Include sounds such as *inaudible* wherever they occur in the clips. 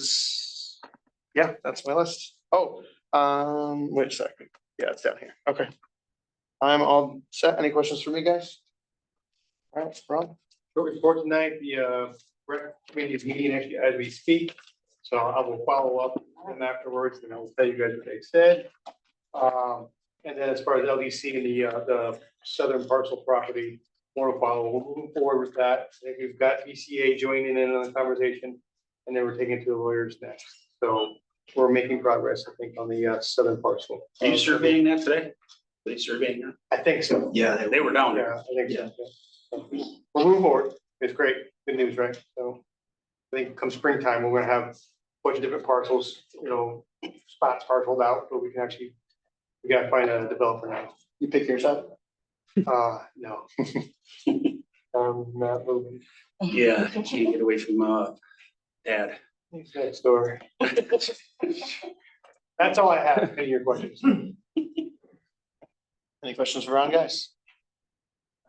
is, yeah, that's my list. Oh, um, wait a second. Yeah, it's down here. Okay. I'm all set. Any questions for me, guys? All right, Rob? Short report tonight, the uh, rec committee is meeting actually as we speak, so I will follow up and afterwards, and I will tell you guys what they said. Um, and then as far as LDC and the, uh, the southern parcel property, more to follow, we'll move forward with that. I think we've got ECA joining in on the conversation, and then we're taking it to the lawyers next, so we're making progress, I think, on the uh, southern parcel. Are you surveying that today? Are they surveying that? I think so. Yeah, they were down there. Yeah, I think so. yeah. We'll move forward. It's great. Good news, right? So I think come springtime, we're gonna have a bunch of different parcels, you know, spots parceled out, but we can actually, we gotta find a developer now. You pick yours up? *laughs* Uh, no. I'm not moving. Yeah, can't get away from, uh, dad. He's Next door. That's all I have. Any of your questions? Any questions for Ron, guys?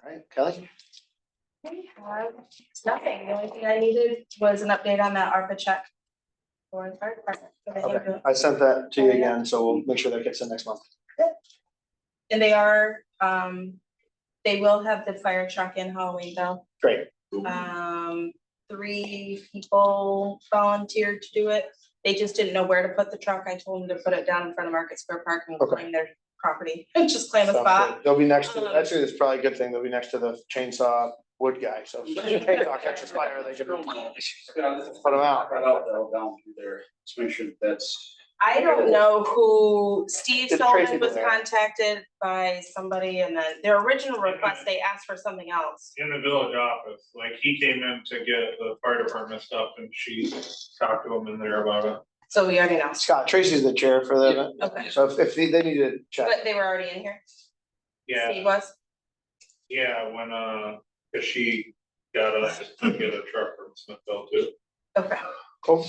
All right, Kelly? We have nothing. The only thing I needed was an update on that ARPA check. For the fire department. for the Okay, ambulance. I sent that to you again, so we'll make sure that gets in next month. And they are, um, they will have the fire truck in Halloween though. Great. uh, Um, three people volunteered to do it. They just didn't know where to put the truck. I told them to put it down in front of Market Square Park and Okay. claim their property, just claim a Sounds spot. good. They'll be next to, Um, actually, that's probably a good thing. They'll be next to the chainsaw wood guy, so. if the chainsaw catches fire, they can Put them out. Right out, that'll down through there, just make sure that's. I don't know who, Steve Did Tracy Solomon go was there? contacted by somebody and then their original request, they asked for something else. in the village office, like he came in to get the fire department stuff and she talked to him in there about it. So we already know, Scott, Tracy's the chair for them, okay, so if, if they they need to check. but they were already in here, Steve Yeah, was, yeah, when, uh, cause she got us to get a truck from Smithville too. okay, Cool.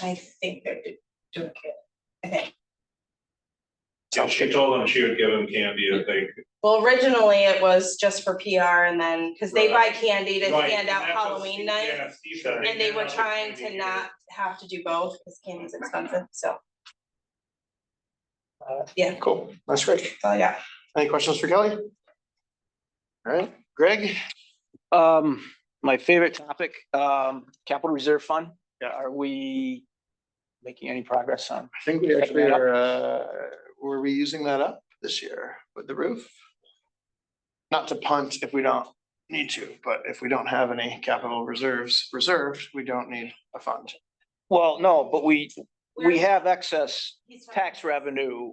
I think they're do- doing it. Okay, And she told him she would give him candy if they. well, originally it was just for PR and then, cause they buy Right. candy to Right, hand and out that's what Halloween Steve- night. yeah, Steve said And they were hand out trying to candy not have to do both, cause candy's expensive, so, Cool, that's great. so yeah. Any questions for Kelly? All right, Greg? Um, my favorite topic, um, capital reserve fund. Are we making any progress on? I think we actually are, uh, were we using that up this year with the roof? Not to punt if we don't need to, but if we don't have any capital reserves reserved, we don't need a fund. Well, no, but we, we We're- have excess he's talking- tax revenue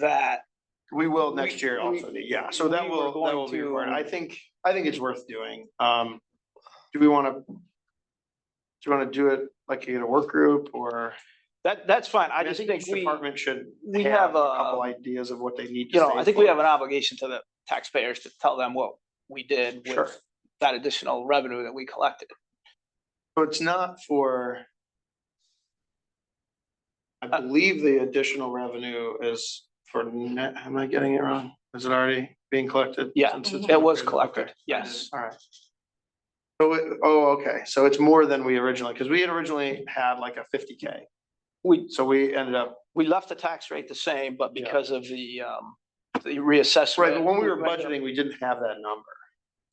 that, We will next year We- also, we- yeah, so that we were will, that will be going to- important. I think, I think it's worth doing. Um, do we wanna? Do you wanna do it like in a work group or? that, that's fine. I mean, just think each we, Department should. we have a- Couple ideas of what they need. to you know, I save think we for. have an obligation to the taxpayers to tell them what we did Sure. with that additional revenue that we collected. So it's not for. Uh, I believe the additional revenue is for net, am I getting it wrong? Is it already being collected? Yeah, since it's- It was Okay. collected, yes. All right. So, it- oh, okay, so it's more than we originally, because we had originally had like a fifty K, We, so we ended up, we left the tax rate the same, but Yeah. because of the, um, the right, reassessment. but when we were ended up- budgeting, we didn't have that number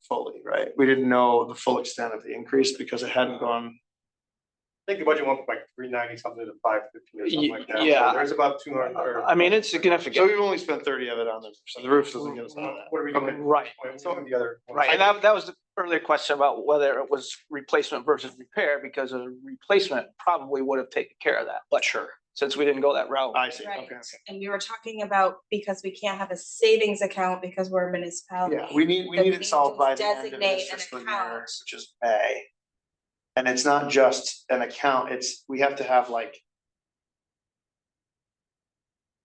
fully, right? We didn't know the full extent of the increase because it hadn't gone, I think the budget went from like three ninety something to five fifty or something like that. So Yeah. There's about two hundred. or- I mean, it's so significant, we've only spent thirty of it on the, roof, so the roof doesn't get us on that. Uh, What are we doing? right. So the other. Right, and that, that was the earlier question about whether it was replacement versus repair, because a replacement probably would have taken care of that, but Sure. since we didn't go that route. I see, Right, okay. and we were talking about, because we can't have a savings account because we're a municipality. Yeah, we need, we that need we it solved by need to the end of this Um, designate an fiscal year, account. which is May. And it's not just an account, it's, we have to have like.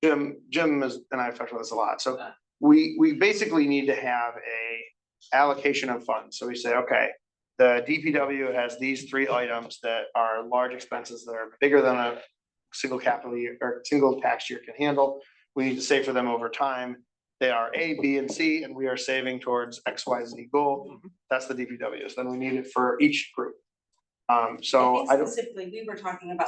Jim, Jim is, and I've talked about this a lot, so we, we basically need to have a allocation of funds, so we say, okay. The DPW has these three items that are large expenses that are bigger than a single capital year, or single tax year can handle. We need to save for them over time, they are A, B, and C, and we are saving towards X, Y, Z goal. That's the DPWs, then we need it for each group. Um, so think I don't. Specifically, we were talking about